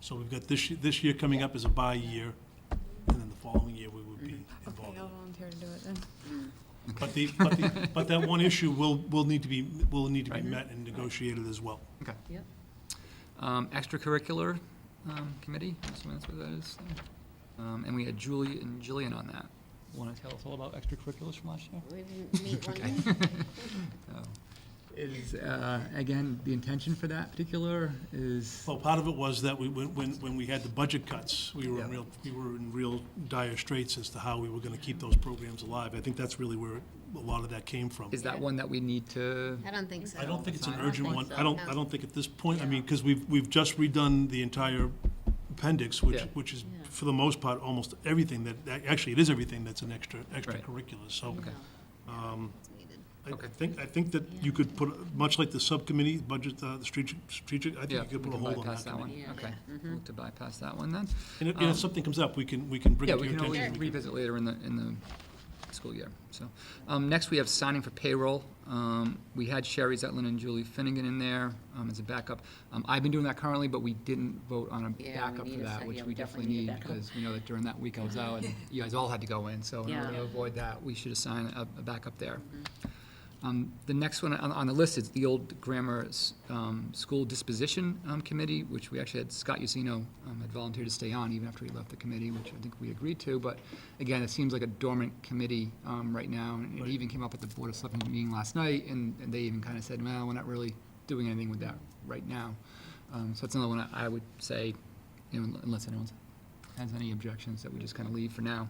So we've got this, ye- this year coming up as a bye year, and then the following year we would be involved. Mm-hmm. Okay, I'll volunteer to do it then. But the, but the, but that one issue will, will need to be, will need to be Right. met and negotiated as well. Okay. Yep. Um, extracurricular, um, committee, I'm assuming that's what that is. Um, and we had Julie and Jillian on that. Want to tell us all about extracurriculars from last year? We didn't meet one day. Is, uh, again, the intention for that particular is, Well, part of it was that we, when, when when we had the budget cuts, we were in Yeah. real, we were in real dire straits as to how we were gonna keep those programs alive. I think that's really where a lot of that came from. is that one that we need to? I don't think so. I don't think it's an I don't urgent think one. so, I don't, no. I don't think at this point, I mean, because we've, we've just redone the entire appendix, which, Yeah. which is, Yeah. for the most part, almost everything that, that- actually, it is everything that's an extra, extracurricular, so. No, um, it's needed. I I Okay. think, I think that you could put, much like the subcommittee, budget, uh, the strategic, strategic, I think Yeah, you could we put a can hold on bypass that that one. committee. Yeah. Mm-hmm. Okay, Yeah. we'll look to bypass that one then. And if, and if Um, something comes up, we can, we can bring Yeah, it to we your can always attention. We can- revisit later in the, in the school year, so. Um, next, we have signing for payroll. Um, we had Sherry Zetlin and Julie Finnegan in there, um, as a backup. Um, I've been doing that currently, but we didn't vote on a Yeah, we backup need for a that, sec- which yeah, we definitely a need, backup. because we know that during that week I was out, and you guys all had to go in, so in order Yeah. to avoid that, we should assign a, a backup there. Um, The next one on, on the list is the old grammar s- um, school disposition um, committee, which we actually had Scott Usino um, had volunteered to stay on even after he left the committee, which I think we agreed to. But again, it seems like a dormant committee um, right now. And it Right. even came up at the Board of Selectmen meeting last night, and, and they even kind of said, well, we're not really doing anything with that right now. Um, So that's another one I I would say, you know, unless anyone has any objections, that we just kind of leave for now.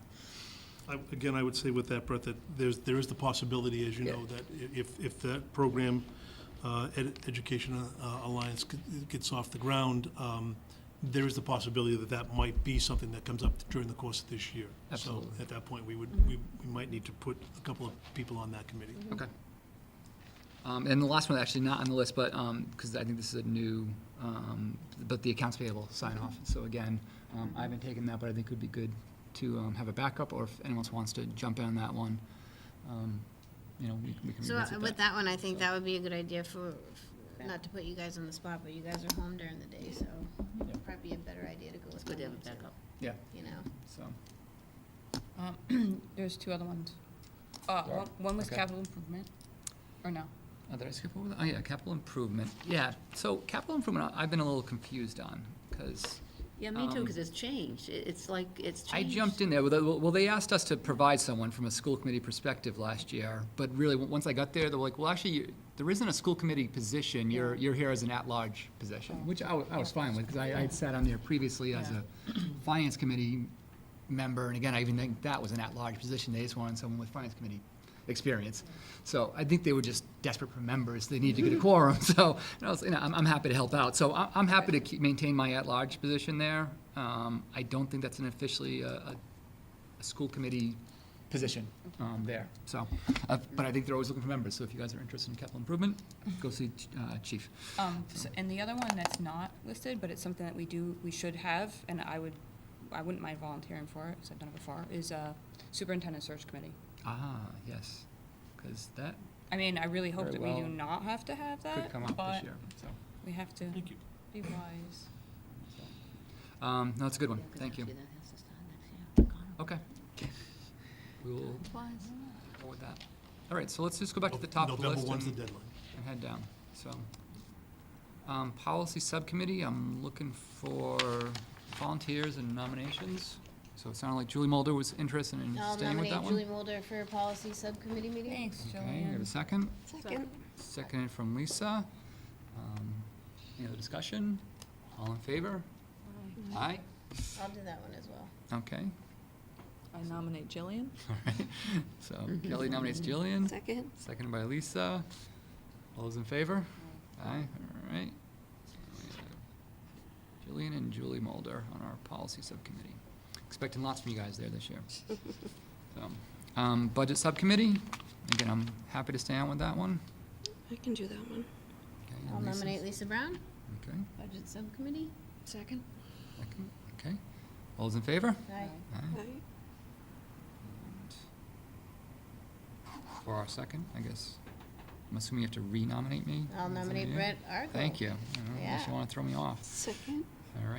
I- Again, I would say with that, Brett, that there's, there is the possibility, as you Yeah. know, that i- if, if that program, uh, Ed- Education uh, Alliance g- gets off the ground, um, there is the possibility that that might be something that comes up during the course of this year. Absolutely. So at that point, we would, we we might need to put a couple of people on that committee. Okay. Um, And the last one, actually not on the list, but, because I think this is a new, um, but the accounts payable sign-off. So again, um, I haven't taken that, but I think it would be good to um, have a backup, or if anyone else wants to jump in on that one, um, you know, we we can So uh, revisit with that. that one, I think that would be a good idea for, not to put you guys on the spot, but you guys are home during the day, so Yeah. probably a better idea to go with Good to have a someone to- backup. Yeah, You know, so, Um, There's two other ones. Uh, There are? one- One was Okay. capital improvement, or no? oh, did I skip over that? Oh, yeah, capital improvement. Yeah, so capital improvement, I- I've been a little confused on, because Yeah, me Um, too, because it's changed. It- It's like, it's I changed. jumped in there, well, they- well, they asked us to provide someone from a school committee perspective last year, but really, w- once I got there, they were like, well, actually, you- there isn't a school committee position, you're, you're here as an at-large position, which I, wa- I was fine with, because I, I had sat on there previously as a finance committee member, and again, I even think that was an at-large position, they just wanted someone with finance committee experience. So I think they were just desperate for members, they needed to get a quorum, so, and I was, you know, I'm, I'm happy to help out. So I, I'm happy to keep, maintain my at-large position there. Um, I don't think that's an officially uh, a, a, a school committee position, um, there, so. Uh, but I think they're always looking for members, so if you guys are interested in capital improvement, go see, uh, chief. Um, so- And the other one that's not listed, but it's something that we do, we should have, and I would, I wouldn't mind volunteering for it, because I've done it before, is uh, superintendent search committee. Ah, yes, because that I mean, I really hope Very that we do well. not have to have could that, come up this but year, so. we have to Thank you. be wise. Um, no, it's a good Yeah, one, 'cause thank you. actually that has to start next year. God, Okay. We will it was. go with that. All right, so let's just go back to the top of the list. November one's the and- deadline. and head down, so. Um, policy subcommittee, I'm looking for volunteers and nominations. So it sounded like Julie Mulder was interested in I'll staying with that nominate one. Julie Mulder for policy subcommittee meeting. Thanks, Okay, we have a Jillian. second. Second. Seconded from Lisa. Um, any other discussion? All in favor? Aye. I'll do that one as well. Okay, I nominate Jillian. all right. So Kelly nominates Jillian. Second. Seconded by Lisa. All those in favor? Aye, all right. So we have Jillian and Julie Mulder on our policy subcommittee. Expecting lots from you guys there this year. So, um, Budget Subcommittee, again, I'm happy to stay on with that one. I can do that one. Okay, and I'll Lisa's- nominate Lisa Brown, Okay, budget subcommittee. Second. second, okay. All those in favor? Aye. Aye. For our second, I guess. I'm assuming you have to re-nominate me? I'll Is that nominate you? Brett Argo. Thank you. I don't know Unless you Yeah. want to throw me off. Second. All right.